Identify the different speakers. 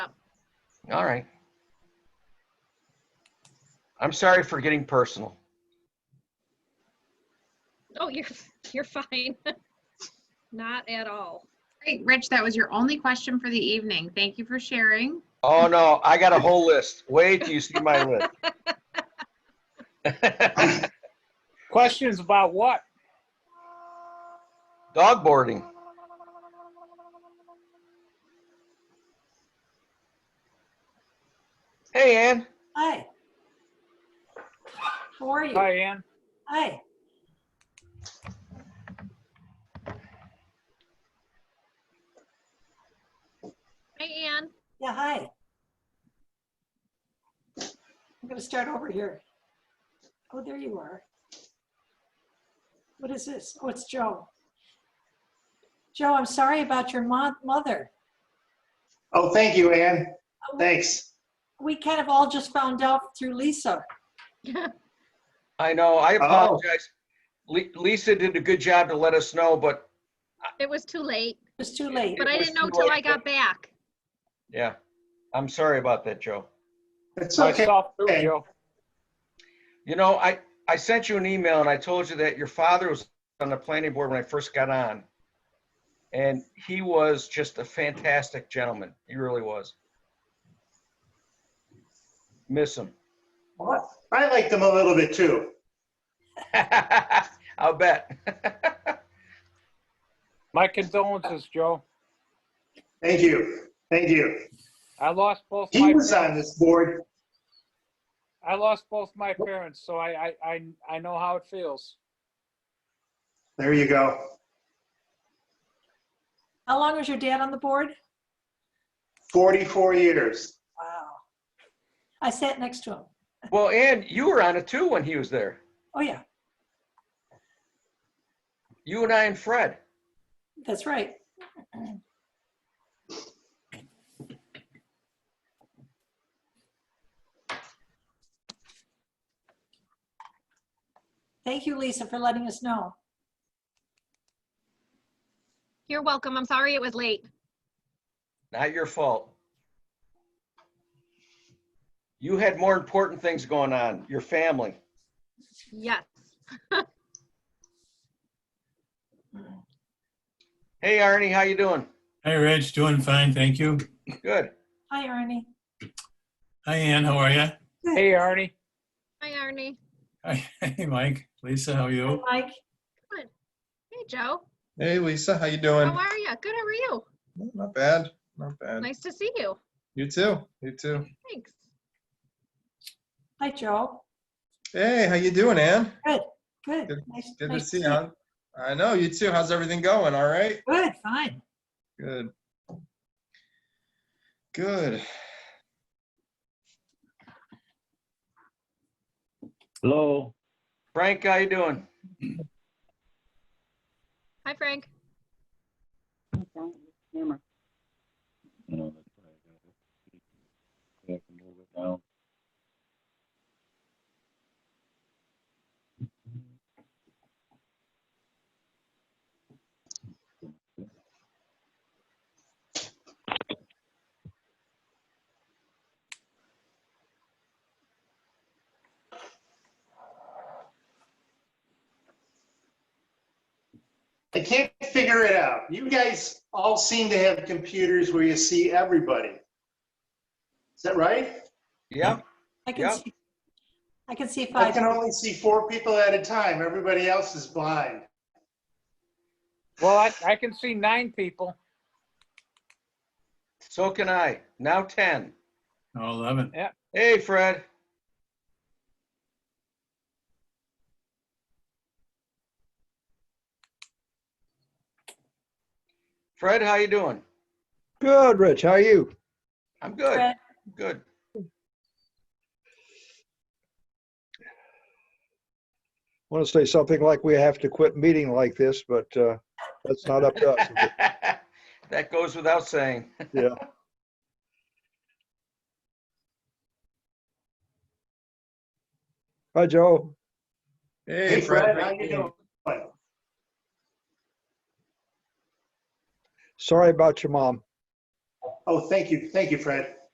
Speaker 1: All right. I'm sorry for getting personal.
Speaker 2: Oh, you're, you're fine. Not at all.
Speaker 3: Great, Rich, that was your only question for the evening. Thank you for sharing.
Speaker 1: Oh no, I got a whole list. Wait till you see my list.
Speaker 4: Questions about what?
Speaker 1: Dog boarding. Hey, Ann.
Speaker 5: Hi. How are you?
Speaker 4: Hi, Ann.
Speaker 5: Hi.
Speaker 2: Hi, Ann.
Speaker 5: Yeah, hi. I'm gonna start over here. Oh, there you are. What is this? Oh, it's Joe. Joe, I'm sorry about your mo- mother.
Speaker 6: Oh, thank you, Ann. Thanks.
Speaker 5: We kind of all just found out through Lisa.
Speaker 1: I know, I apologize. Li- Lisa did a good job to let us know, but
Speaker 2: It was too late,
Speaker 5: It's too late.
Speaker 2: but I
Speaker 1: was
Speaker 2: didn't know
Speaker 1: too
Speaker 2: till
Speaker 1: late,
Speaker 2: I got back.
Speaker 1: yeah. I'm sorry about that, Joe.
Speaker 6: It's okay.
Speaker 4: Myself too,
Speaker 6: Okay.
Speaker 4: Joe.
Speaker 1: You know, I, I sent you an email and I told you that your father was on the planning board when I first got on. And he was just a fantastic gentleman. He really was. Miss him.
Speaker 6: I liked them a little bit too.
Speaker 1: I'll bet.
Speaker 4: My condolences, Joe.
Speaker 6: Thank you. Thank you.
Speaker 4: I lost both my,
Speaker 6: He was uh, on this board.
Speaker 4: I lost both my parents, so I, I, I, I know how it feels.
Speaker 6: There you go.
Speaker 5: How long was your dad on the board?
Speaker 6: 44 years.
Speaker 5: Wow. I sat next to him.
Speaker 1: well, Ann, you were on it too when he was there.
Speaker 5: Oh, yeah,
Speaker 1: You and I and Fred.
Speaker 5: that's right. Thank you, Lisa, for letting us know.
Speaker 2: You're welcome. I'm sorry it was late.
Speaker 1: Not your fault. You had more important things going on, your family.
Speaker 2: Yes.
Speaker 1: Hey, Arnie, how you doing?
Speaker 7: Hi, Rich. Doing fine, thank you.
Speaker 1: Good.
Speaker 5: Hi, Ernie.
Speaker 7: Hi, Ann. How are you?
Speaker 4: Hey, Arnie.
Speaker 2: Hi, Arnie.
Speaker 7: Hey, Mike. Lisa, how are
Speaker 5: Hi,
Speaker 7: you?
Speaker 5: Mike.
Speaker 2: Hey, Joe.
Speaker 8: Hey, Lisa, how you
Speaker 2: How
Speaker 8: doing?
Speaker 2: are you? Good, how are you?
Speaker 8: Not bad, not bad.
Speaker 2: Nice to see you.
Speaker 8: You too, you too.
Speaker 2: Thanks.
Speaker 5: Hi, Joe.
Speaker 8: Hey, how you doing, Ann?
Speaker 5: Good.
Speaker 8: Good-
Speaker 5: Nice-
Speaker 8: Good to
Speaker 5: nice
Speaker 8: see you. I know, you too. How's everything going? All right?
Speaker 5: Good, fine.
Speaker 8: Good. Good.
Speaker 9: Hello,
Speaker 1: Frank, how you doing?
Speaker 2: Hi, Frank.
Speaker 9: No, that's right. I can move it down.
Speaker 6: I can't figure it out. You guys all seem to have computers where you see everybody. Is that right?
Speaker 1: Yeah.
Speaker 5: I can
Speaker 1: Yeah.
Speaker 5: see, I can see
Speaker 6: I
Speaker 5: five.
Speaker 6: can only see four people at a time. Everybody else is blind.
Speaker 4: Well, I, I can see nine people
Speaker 1: So can I. Now 10.
Speaker 7: Oh, 11.
Speaker 1: Hey, Fred. Fred, how you doing?
Speaker 10: Good, Rich. How are you?
Speaker 1: I'm good.
Speaker 5: Fred.
Speaker 1: Good.
Speaker 10: Want to say something like we have to quit meeting like this, but uh, that's not up to us. is it?
Speaker 1: That goes without saying.
Speaker 10: Yeah. Hi, Joe.
Speaker 6: Hey, Fred, how you doing?
Speaker 10: Sorry about your mom.
Speaker 6: Oh, thank you, thank you, Fred.